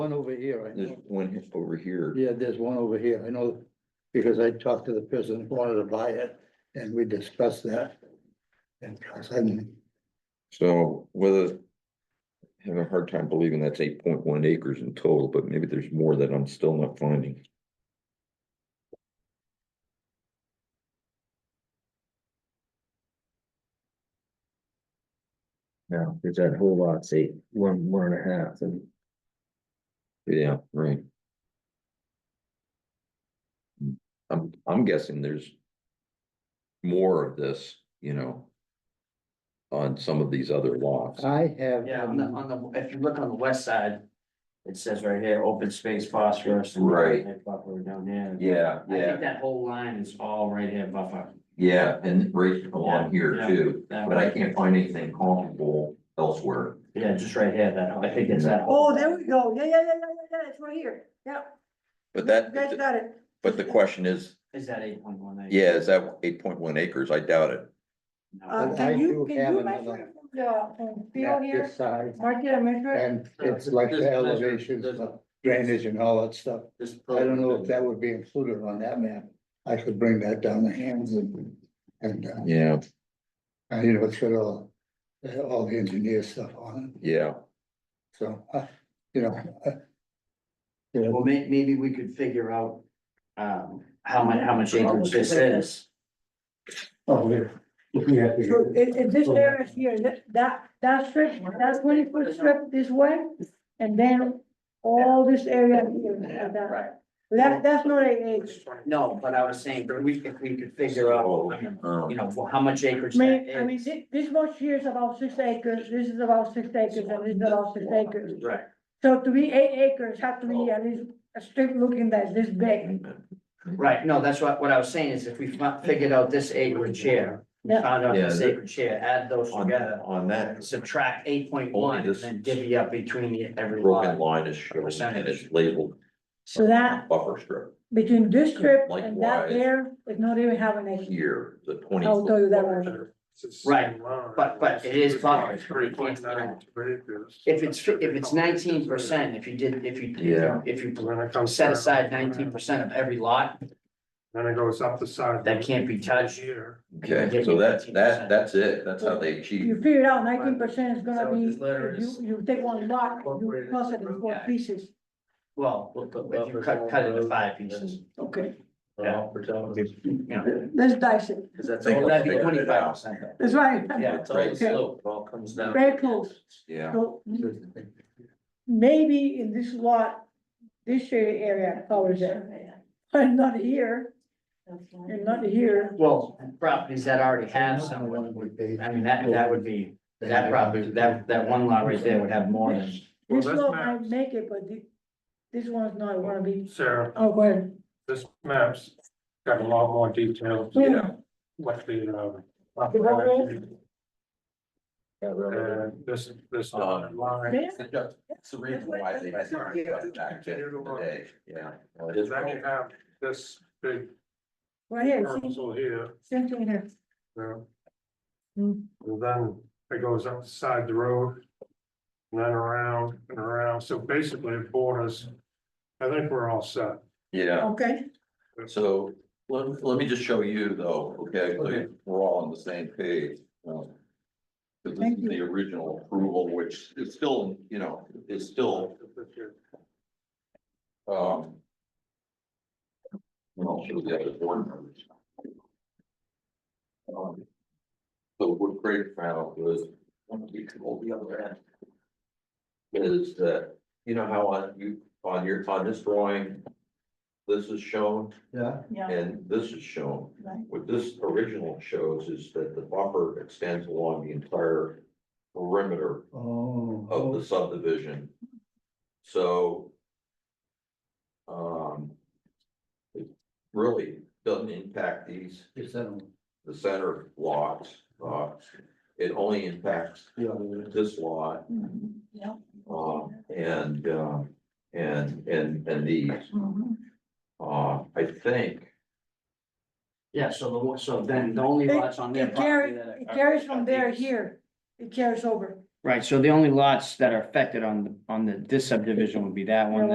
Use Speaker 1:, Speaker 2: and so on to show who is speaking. Speaker 1: One over here, I
Speaker 2: There's
Speaker 1: know.
Speaker 2: one he- over here.
Speaker 1: Yeah, there's one over here. I know, because I talked to the person who wanted to buy it and we discussed that. And because I'm,
Speaker 2: So whether. Having a hard time believing that's eight point one acres in total, but maybe there's more that I'm still not finding.
Speaker 3: No, because that whole lot's eight, one, one and a half, and
Speaker 2: Yeah, right. I'm, I'm guessing there's. More of this, you know. On some of these other lots.
Speaker 1: I have.
Speaker 4: Yeah, on the,
Speaker 2: Um,
Speaker 4: on the, if you look on the west side, it says right here, open space phosphorus. and
Speaker 2: Right.
Speaker 4: that Buffer down there.
Speaker 2: Yeah,
Speaker 4: I think that whole line is all right here buffer.
Speaker 2: yeah, and right
Speaker 4: along here Yeah, yeah.
Speaker 2: too,
Speaker 4: That way.
Speaker 2: can't find anything comparable elsewhere.
Speaker 4: Yeah, just right here, that, I think it's that. whole-
Speaker 5: Oh, there we go. Yeah, yeah, yeah, yeah, yeah, yeah, it's right here. Yeah.
Speaker 2: But
Speaker 5: You guys
Speaker 2: that,
Speaker 5: got it.
Speaker 2: but the question is,
Speaker 4: Is that eight point one eight?
Speaker 2: yeah, is that eight point one acres? I doubt it.
Speaker 5: Uh,
Speaker 1: I
Speaker 5: can you,
Speaker 1: do
Speaker 5: can
Speaker 1: have
Speaker 5: you measure
Speaker 1: another-
Speaker 5: it from the, from field
Speaker 1: Not
Speaker 5: here?
Speaker 1: this side,
Speaker 5: Mark it and measure it?
Speaker 1: and it's like
Speaker 4: There's
Speaker 1: the
Speaker 4: a measure,
Speaker 1: elevations,
Speaker 4: there's a-
Speaker 1: the drainage and all that stuff.
Speaker 4: This-
Speaker 1: I don't know if that would be included on that map. I could bring that down to hands and, and, uh,
Speaker 2: Yeah,
Speaker 1: and, you know, it's got all, uh, all the engineer stuff on it,
Speaker 2: yeah,
Speaker 1: so, uh, you know. uh, You know,
Speaker 4: Well, may, maybe we could figure out, um, how much, how much acreage this is.
Speaker 1: oh, yeah.
Speaker 5: So in, in this area here, that, that, that strip, that twenty foot strip this way, and then all this area here, like that.
Speaker 4: Right.
Speaker 5: That, that's not a, it's,
Speaker 4: No, but I was saying, but we, if we could figure
Speaker 2: Oh,
Speaker 4: out,
Speaker 2: oh.
Speaker 4: you know, for how much acreage
Speaker 5: I
Speaker 4: that
Speaker 5: mean, I mean,
Speaker 4: is.
Speaker 5: this, this much here is about six acres, this is about six acres, and this is about six acres.
Speaker 4: Right,
Speaker 5: So to be eight acres, have to be at least a strip looking that's this big.
Speaker 4: right, no, that's what, what I was saying is if we fi- figured out this acreage here, we
Speaker 5: Yeah.
Speaker 4: found out
Speaker 2: Yeah,
Speaker 4: this
Speaker 2: the-
Speaker 4: acreage here, add those
Speaker 2: On that,
Speaker 4: together,
Speaker 2: on that
Speaker 4: subtract eight point
Speaker 2: Only
Speaker 4: one, and
Speaker 2: this-
Speaker 4: then divvy up between the- every
Speaker 2: broken
Speaker 4: lot.
Speaker 2: line is shown and it's labeled
Speaker 5: So that,
Speaker 2: buffer strip
Speaker 5: between this strip and that
Speaker 2: Likewise.
Speaker 5: there, it's not even having a,
Speaker 2: here, the twenty.
Speaker 5: I'll tell you that one.
Speaker 4: Right, but- but it is buffered.
Speaker 6: Three point nine acres.
Speaker 4: If it's, fi- if it's nineteen percent, if you did, if you,
Speaker 2: Yeah.
Speaker 4: if you
Speaker 6: Then it comes
Speaker 4: set
Speaker 6: down.
Speaker 4: aside nineteen percent of every lot,
Speaker 6: Then it goes up the side.
Speaker 4: That can't be touched.
Speaker 6: Here.
Speaker 2: Okay, so that's, that, that's it, that's how they
Speaker 5: you
Speaker 2: achieve.
Speaker 5: figure out nineteen percent is gonna
Speaker 4: So
Speaker 5: be,
Speaker 4: this letter
Speaker 5: you,
Speaker 4: is
Speaker 5: you take one block, you
Speaker 4: incorporated
Speaker 5: cross it
Speaker 4: into
Speaker 5: in
Speaker 4: the
Speaker 5: four
Speaker 4: road.
Speaker 5: pieces,
Speaker 4: well, if you cut, cut it into five pieces.
Speaker 5: okay,
Speaker 4: Yeah. You know,
Speaker 5: let's dice it,
Speaker 2: That's
Speaker 4: So that'd be twenty-five percent.
Speaker 5: that's right,
Speaker 4: Yeah, it's all
Speaker 2: Right.
Speaker 4: slope, it all comes down.
Speaker 5: very close.
Speaker 2: Yeah,
Speaker 5: So maybe in this lot, this shaded area covers it, but not here, and not here.
Speaker 4: Well, properties that already have
Speaker 1: Another
Speaker 4: some,
Speaker 1: one would be-
Speaker 4: I mean, that, that would be, that property, that, that one lot right there would have more than.
Speaker 6: Well,
Speaker 5: This
Speaker 6: this
Speaker 5: lot might
Speaker 6: map,
Speaker 5: make it, but thi- this one's not gonna be,
Speaker 6: Sarah,
Speaker 5: oh, well.
Speaker 6: this map's got a lot more details.
Speaker 5: Yeah.
Speaker 6: What the, um.
Speaker 5: road?
Speaker 6: Uh, this, this
Speaker 2: Um,
Speaker 6: line.
Speaker 2: that's the reason why they had to cut it back to today, yeah. Well, it is-
Speaker 6: Then you have this big
Speaker 5: Right here, see,
Speaker 6: parcel here,
Speaker 5: same thing here.
Speaker 6: uh,
Speaker 5: Hmm.
Speaker 6: And then it goes up the side of the road. And then around and around, so basically it borders, I think we're all set.
Speaker 2: Yeah,
Speaker 5: Okay,
Speaker 2: so let, let me just show you though, okay, so we're all on the same page. um, 'cause this
Speaker 5: Thank
Speaker 2: is the original approval, which is still, you know, is still Um. And I'll show the other board members. Um, So what Craig found was, one of the, all the other end. Is that, you know how on you, on your, on this drawing. This is shown
Speaker 1: Yeah.
Speaker 5: yeah,
Speaker 2: and this is shown.
Speaker 5: Right.
Speaker 2: What this original shows is that the buffer extends along the entire perimeter of
Speaker 1: Oh.
Speaker 2: the subdivision. So. Um. It really doesn't impact these,
Speaker 1: Is that-
Speaker 2: the center lots, uh, it only impacts
Speaker 1: yeah.
Speaker 2: this lot,
Speaker 5: Mhm, yeah.
Speaker 2: um, and, um. And, and, and these,
Speaker 5: mhm.
Speaker 2: uh, I think,
Speaker 4: Yeah, so the, one- so then the only
Speaker 5: It-
Speaker 4: lots on their
Speaker 5: It
Speaker 4: property
Speaker 5: carries,
Speaker 4: that are.
Speaker 5: it carries from there here, it carries over,
Speaker 4: Right, so the only lots that are affected on, the on the, this subdivision would be that one,